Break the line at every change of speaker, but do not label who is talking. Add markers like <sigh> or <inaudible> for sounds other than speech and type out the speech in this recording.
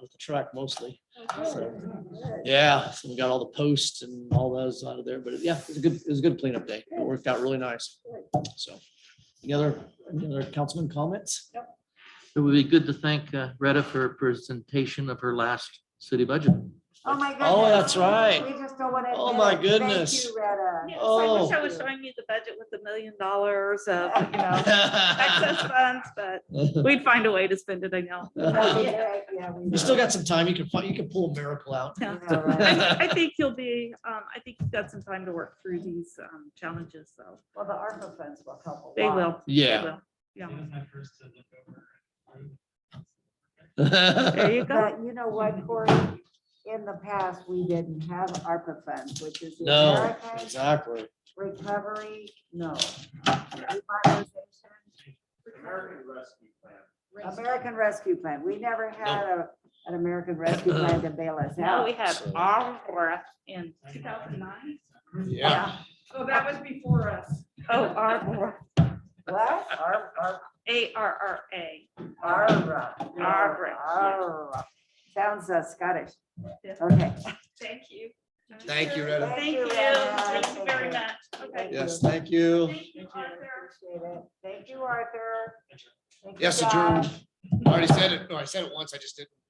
with the truck mostly.
Okay.
So,
Oh
Yeah, so we got all the posts and all those out of there, but yeah, it was a good, it was a good cleanup day. It worked out really nice. So, any other, any other councilman comments?
It would be good to thank uh, Retta for her presentation of her last city budget.
Oh, my goodness.
Oh, that's right.
We just don't want to.
Oh, my goodness.
Thank you, Retta.
<laughs>
Yes, I wish I
Oh.
was showing you the budget with the million dollars of, <laughs> you know, excess funds, but
<laughs> You
we'd find a way to spend it, I <laughs> know.
Yeah, yeah, we will.
still got some time. You can, fi- you can pull a miracle out.
Yeah,
<laughs> Yeah.
right.
I I think you'll be, um, I think you've got some time to work through these um, challenges, so
Well, the ARPA funds will help a
they
lot.
will. they
<laughs> Yeah.
will, Yeah, there
There
you go.
But you know what, Corey? In the past, we didn't have ARPA funds, which is the
No,
American
exactly.
Recovery, no. Revitalization,
American Rescue Plan.
American Rescue Plan. We never had a, an American Rescue Plan to bail us
Now we
out.
have
So-
our in two thousand nine.
Yeah.
Oh, that was before us. Oh, our,
<laughs> What? Ar- ar-
A R R A.
Arra.
Arra, yeah.
Arra. Sounds uh, Scottish.
Yeah.
Okay.
Thank you.
Thank you, Retta.
Thank you,
Rheta.
thank you very much. Okay.
Yes, thank you.
Thank you, Arthur.
Appreciate it. Thank you, Arthur. Thank you,
Yes,
Josh.
adjourned. I already said it. No, I said it once. I just didn't.